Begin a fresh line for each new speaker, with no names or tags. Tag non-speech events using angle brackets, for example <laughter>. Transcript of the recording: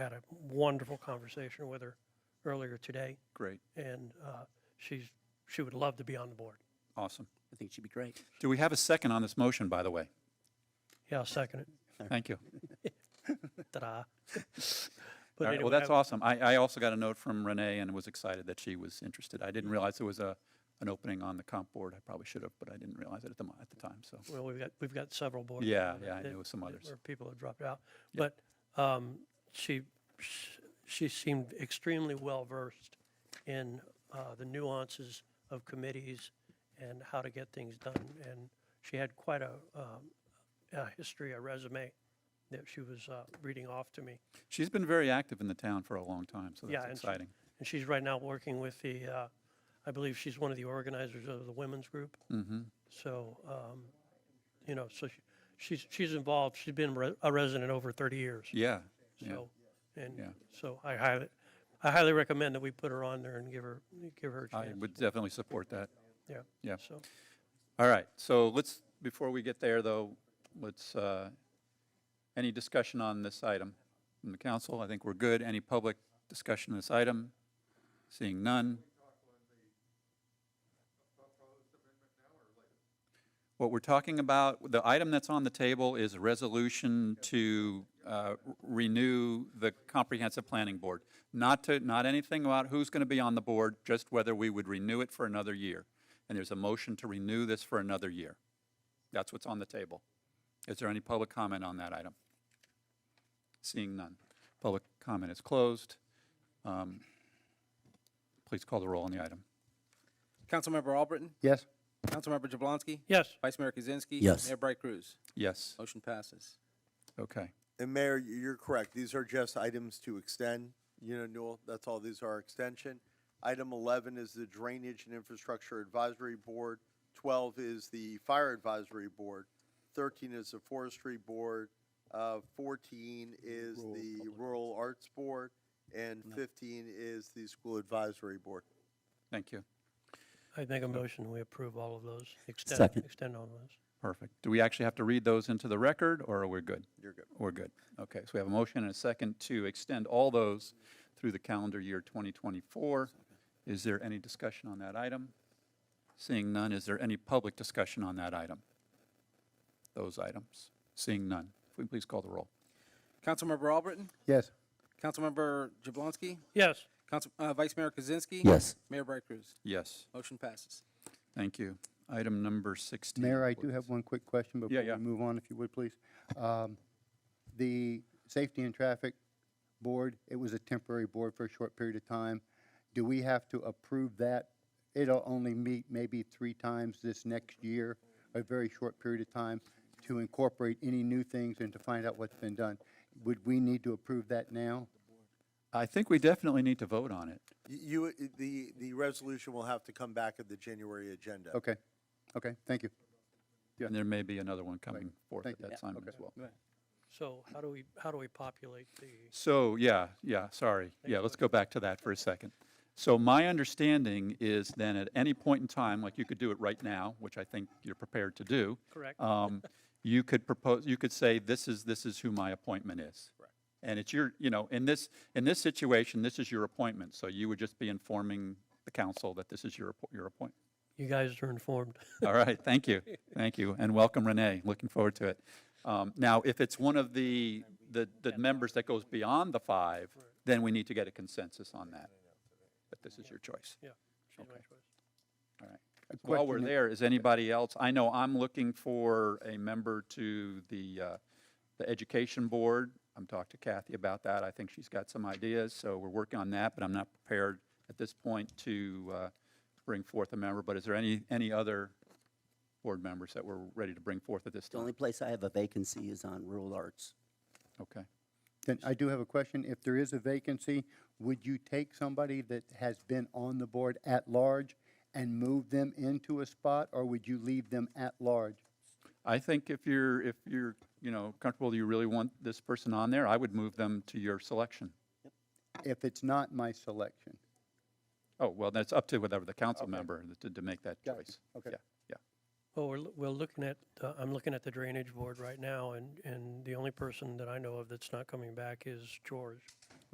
had a wonderful conversation with her earlier today,
Great,
and uh, she's, she would love to be on the board.
awesome.
I think she'd be great.
Do we have a second on this motion, by the way?
Yeah, I'll second it.
Thank you.
Ta-da. <laughs>
All
But
right, well,
anyway,
that's
I-
awesome. I, I also got a note from Renee and was excited that she was interested. I didn't realize there was a, an opening on the comp board. I probably should have, but I didn't realize it at the, mo- at the time, so.
Well, we've got, we've got several boards.
Yeah,
now that-
yeah, I
that-
knew of some
that-
others.
Where people have dropped out. But um, she, sh- she seemed extremely well-versed in uh, the nuances of committees and how to get things done. And she had quite a, um, a history, a resume that she was uh, reading off to me.
She's been very active in the town for a long time, so
Yeah,
that's
and she-
exciting.
And she's right now working with the, uh, I believe she's one of the organizers of the women's group.
Mm-hmm,
So, um, you know, so she- she's, she's involved, she's been re- a resident over 30 years.
yeah, yeah.
So,
Yeah.
and so I highly, I highly recommend that we put her on there and give her, give her a
I
chance.
would definitely support that.
Yeah.
yeah.
So,
All right, so let's, before we get there, though, let's, uh, any discussion on this item from the council? I think we're good. Any public discussion on this item? Seeing none. What we're talking about, the item that's on the table is a resolution to uh, renew the comprehensive planning board. Not to, not anything about who's going to be on the board, just whether we would renew it for another year. And there's a motion to renew this for another year. That's what's on the table. Is there any public comment on that item? Seeing none. Public comment is closed. Um, Please call the roll on the item.
Councilmember Albritton?
Yes.
Councilmember Jablonski?
yes,
Vice Mayor Kaczynski?
Yes.
Mayor Bright Cruz?
Yes,
Motion passes.
okay.
And Mayor, you- you're correct. These are just items to extend, you know, Newell, that's all. These are extension. Item 11 is the Drainage and Infrastructure Advisory Board. 12 is the Fire Advisory Board. 13 is the Forestry Board. Uh, 14 is the Rural Arts Board. And 15 is the School Advisory Board.
Thank you.
I make a motion, we approve all of those, extend,
Second.
extend all of those.
Perfect. Do we actually have to read those into the record, or are we good?
You're good.
We're good. Okay, so we have a motion and a second to extend all those through the calendar year 2024. Is there any discussion on that item? Seeing none, is there any public discussion on that item? Those items? Seeing none. If we please call the roll.
Councilmember Albritton?
Yes.
Councilmember Jablonski?
Yes,
Council, uh, Vice Mayor Kaczynski?
Yes.
Mayor Bright Cruz?
Yes,
Motion passes.
thank you. Item number 16.
Mayor, I do
please.
have one quick question before
yeah.
we move on, if you would, please. Um, The Safety and Traffic Board, it was a temporary board for a short period of time. Do we have to approve that? It'll only meet maybe three times this next year, a very short period of time, to incorporate any new things and to find out what's been done. Would we need to approve that now?
I think we definitely need to vote on it.
You- You, the, the resolution will have to come back at the January agenda.
Okay, okay, thank you. Yeah.
And there may be another one coming forth
Thank
at
you.
that time as well.
so how do we, how do we populate the,
So, yeah, yeah, sorry. Yeah, let's go back to that for a second. So my understanding is then at any point in time, like you could do it right now, which I think you're prepared to do.
Correct.
um, You could propose, you could say, this is, this is who my appointment is. Right. And it's your, you know, in this, in this situation, this is your appointment. So you would just be informing the council that this is your, appo- your appointment.
you guys are
<laughs>
informed.
All right, thank you, thank you, and welcome Renee, looking forward to it. Um, Now, if it's one of the, the, the members that goes beyond the five, then we need to get a consensus on that. But this is your choice,
Yeah, she's my choice.
all right. While we're
question-
there, is anybody else, I know I'm looking for a member to the, uh, the Education Board. I'm talking to Kathy about that, I think she's got some ideas, so we're working on that, but I'm not prepared at this point to uh, bring forth a member. But is there any, any other board members that we're ready to bring forth at this
The
time?
only place I have a vacancy is on rural arts.
Okay.
Then I do have a question. If there is a vacancy, would you take somebody that has been on the board at large and move them into a spot, or would you leave them at large?
I think if you're, if you're, you know, comfortable, you really want this person on there, I would move them to your selection.
If it's not my selection?
Oh, well, that's up to whatever the council member to, to make that
Gotcha.
choice.
Okay.
Yeah, yeah.
Well, we're, l- we're looking at, uh, I'm looking at the Drainage Board right now, and, and the only person that I know of that's not coming back is George.